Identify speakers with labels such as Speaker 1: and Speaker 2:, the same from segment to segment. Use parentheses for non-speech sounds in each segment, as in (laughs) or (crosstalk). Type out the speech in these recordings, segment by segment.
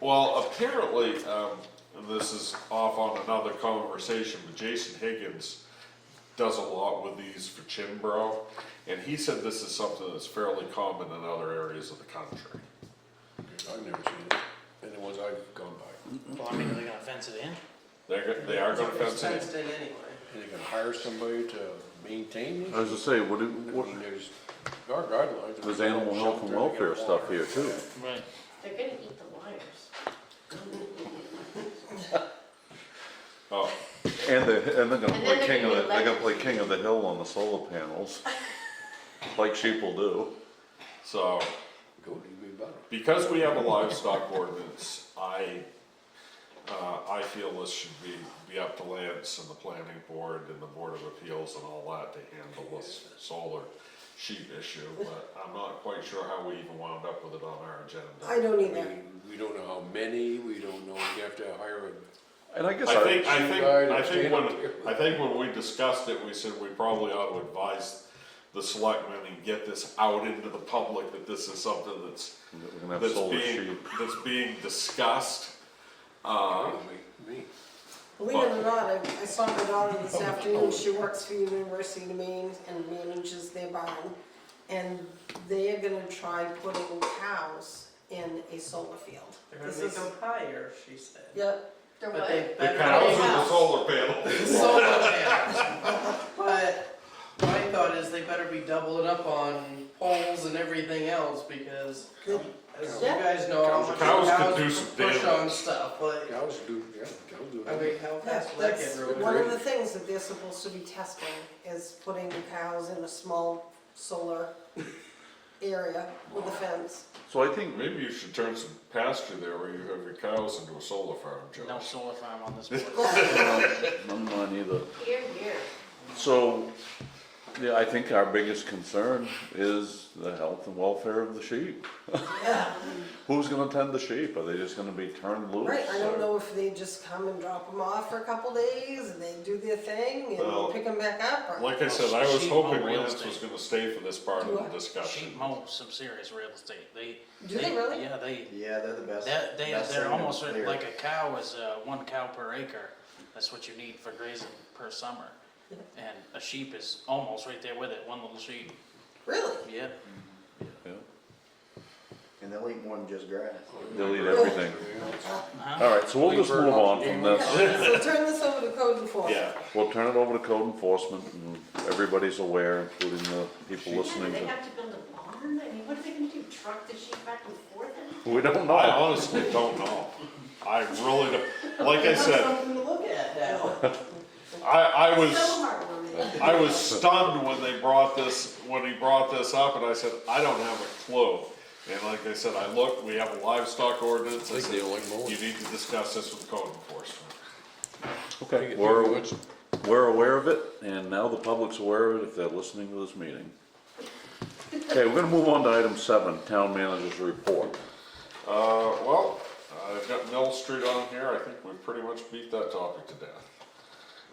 Speaker 1: Well, apparently, um, and this is off on another conversation, but Jason Higgins does a lot with these for Chinbro, and he said this is something that's fairly common in other areas of the country.
Speaker 2: I've never seen it, and the ones I've gone by,
Speaker 3: Well, I mean, are they gonna fence it in?
Speaker 1: They're, go- they are gonna
Speaker 4: It's
Speaker 1: fence it.
Speaker 4: fenced in anyway.
Speaker 2: and they can hire somebody to maintain
Speaker 5: I
Speaker 2: this.
Speaker 5: was gonna say, what,
Speaker 2: I
Speaker 5: do- what,
Speaker 2: mean, there's, there are guidelines.
Speaker 5: there's animal health and
Speaker 2: Shelter, they
Speaker 5: welfare
Speaker 2: get
Speaker 5: stuff
Speaker 2: water.
Speaker 5: here too.
Speaker 3: Right.
Speaker 4: They're gonna eat the wires.
Speaker 1: Oh,
Speaker 5: And they, and they're gonna
Speaker 4: And
Speaker 5: play
Speaker 4: then
Speaker 5: king of the,
Speaker 4: they're
Speaker 5: they're gonna play
Speaker 4: gonna
Speaker 5: king of the hill on the solar (laughs) panels, like sheep will do.
Speaker 1: so,
Speaker 2: Go to be better.
Speaker 1: because we have a livestock ordinance, I, uh, I feel this should be, be up to Lance and the planning board and the board of appeals and all that to handle this solar sheep issue, but I'm not quite sure how we even wound up with it on our agenda.
Speaker 6: I don't
Speaker 2: I
Speaker 6: either.
Speaker 2: mean, we don't know how many, we don't know, you have to hire a,
Speaker 5: And I guess
Speaker 1: I
Speaker 5: I,
Speaker 1: think, I think,
Speaker 2: Guide
Speaker 1: I
Speaker 2: us,
Speaker 1: think
Speaker 2: Gina.
Speaker 1: when, I think when we discussed it, we said we probably ought to advise the selectmen and get this out into the public that this is something that's,
Speaker 5: we're gonna have
Speaker 1: that's
Speaker 5: solar
Speaker 1: being,
Speaker 5: sheep.
Speaker 1: that's being discussed. Uh,
Speaker 2: me, me.
Speaker 6: Believe it or not, I, I saw my daughter this afternoon, she works for University of Maine and manages their barn. And they are gonna try putting cows in a solar field.
Speaker 7: They're
Speaker 6: This
Speaker 7: gonna make
Speaker 6: is,
Speaker 7: them higher, she said.
Speaker 6: yep,
Speaker 4: They're
Speaker 7: But
Speaker 4: what?
Speaker 7: they
Speaker 1: The
Speaker 7: better.
Speaker 1: cows and the
Speaker 4: house.
Speaker 1: solar
Speaker 3: (laughs)
Speaker 1: panels.
Speaker 7: Solar panels. But my thought is they better be doubling up on poles and everything else because as you
Speaker 6: Yeah.
Speaker 7: guys know, how much
Speaker 1: Cows could
Speaker 7: cows
Speaker 1: do
Speaker 7: can
Speaker 1: some
Speaker 7: push on
Speaker 1: damage.
Speaker 7: stuff, like,
Speaker 2: Cows do, yeah, cows do.
Speaker 7: I mean, how
Speaker 6: yeah,
Speaker 7: fast will that
Speaker 6: that's
Speaker 7: get
Speaker 6: one
Speaker 7: ruined?
Speaker 6: of the things that they're supposed to be testing, is putting cows in a small solar area with a fence.
Speaker 5: So I think,
Speaker 1: Maybe you should turn some pasture there where you have your cows into a solar farm,
Speaker 3: No
Speaker 1: Josh.
Speaker 3: solar farm on this board.
Speaker 1: (laughs)
Speaker 5: I'm not either.
Speaker 4: Here, here.
Speaker 5: So, yeah, I think our biggest concern is the health and welfare of the sheep.
Speaker 6: Yeah.
Speaker 5: (laughs) Who's gonna tend the sheep? Are they just gonna be turned loose?
Speaker 6: Right, I don't
Speaker 5: or-
Speaker 6: know if they just come and drop them off for a couple days, and they do their thing,
Speaker 1: Well,
Speaker 6: and pick them back up, or,
Speaker 1: Like I said, I was
Speaker 3: Sheep
Speaker 1: hoping
Speaker 3: on real
Speaker 1: Lance was
Speaker 3: estate.
Speaker 1: gonna stay for this part of
Speaker 6: Do
Speaker 1: the
Speaker 6: I?
Speaker 1: discussion.
Speaker 3: Sheep mow some serious real estate. They.
Speaker 6: Do they really?
Speaker 3: Yeah, they,
Speaker 8: Yeah, they're the best.
Speaker 3: they're, they-
Speaker 8: best
Speaker 3: they're
Speaker 8: thing to
Speaker 3: almost
Speaker 8: clear.
Speaker 3: like a cow is, uh, one cow per acre. That's what you need for grazing per summer. And a sheep is almost right there with it, one little sheep,
Speaker 6: really?
Speaker 3: yeah.
Speaker 5: Yeah,
Speaker 8: And they'll eat more than just grass.
Speaker 5: They'll eat everything.
Speaker 3: Uh-huh.
Speaker 5: All right, so we'll just move on from this.
Speaker 6: So turn this over to code enforcement.
Speaker 1: Yeah,
Speaker 5: We'll turn it over to code enforcement and everybody's aware, including the people
Speaker 4: Yeah, do
Speaker 5: listening.
Speaker 4: they
Speaker 5: to-
Speaker 4: have to build a barn? I mean, what are they gonna do? Truck the sheep back and forth?
Speaker 5: We don't
Speaker 1: I
Speaker 5: know.
Speaker 1: honestly don't know. I really don't, like I
Speaker 7: That's
Speaker 1: said,
Speaker 7: something to look at now.
Speaker 1: I, I was.
Speaker 4: So hard on
Speaker 1: (laughs)
Speaker 4: it.
Speaker 1: I was stunned when they brought this, when he brought this up, and I said, I don't have a clue. And like I said, I looked, we have a livestock ordinance, I
Speaker 2: Like
Speaker 1: said,
Speaker 2: they like mowing.
Speaker 1: you need to discuss this with code enforcement.
Speaker 5: Okay, we're, we're aware of it and now the public's aware of it if they're listening to this meeting. Okay, we're gonna move on to item seven, town manager's report.
Speaker 1: Uh, well, I've got Mill Street on here, I think we pretty much beat that topic to death.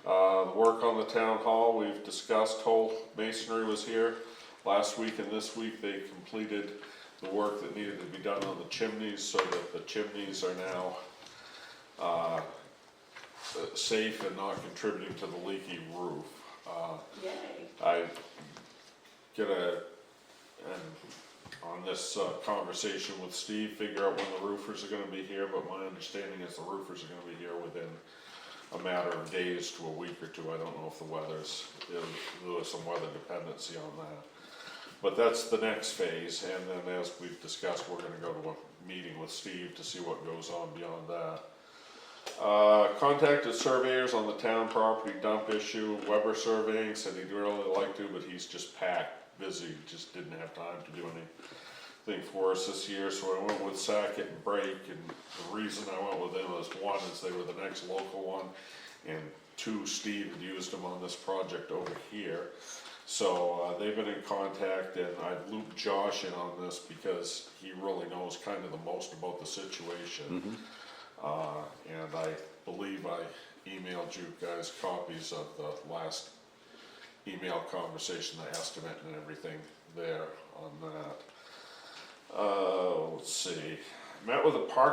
Speaker 1: Uh, the work on the town hall, we've discussed, Whole Masonry was here last week and this week, they completed the work that needed to be done on the chimneys, so that the chimneys are now, uh, safe and not contributing to the leaky roof. Uh,
Speaker 4: Yay.
Speaker 1: I get a, and on this uh, conversation with Steve, figure out when the roofers are gonna be here, but my understanding is the roofers are gonna be here within a matter of days to a week or two, I don't know if the weather's, if there was some weather dependency on that. But that's the next phase, and then as we've discussed, we're gonna go to a meeting with Steve to see what goes on beyond that. Uh, contacted surveyors on the town property dump issue, Weber Surveying said he'd really like to, but he's just packed, busy, just didn't have time to do anything for us this year, so I went with Sackett and Brake, and the reason I went with them is, one, is they were the next local one, and two, Steve had used them on this project over here. So, uh, they've been in contact, and I looped Josh in on this, because he really knows kind of the most about the situation. Uh, and I believe I emailed you guys copies of the last email conversation, the estimate and everything there on that. Uh, let's see, met with a park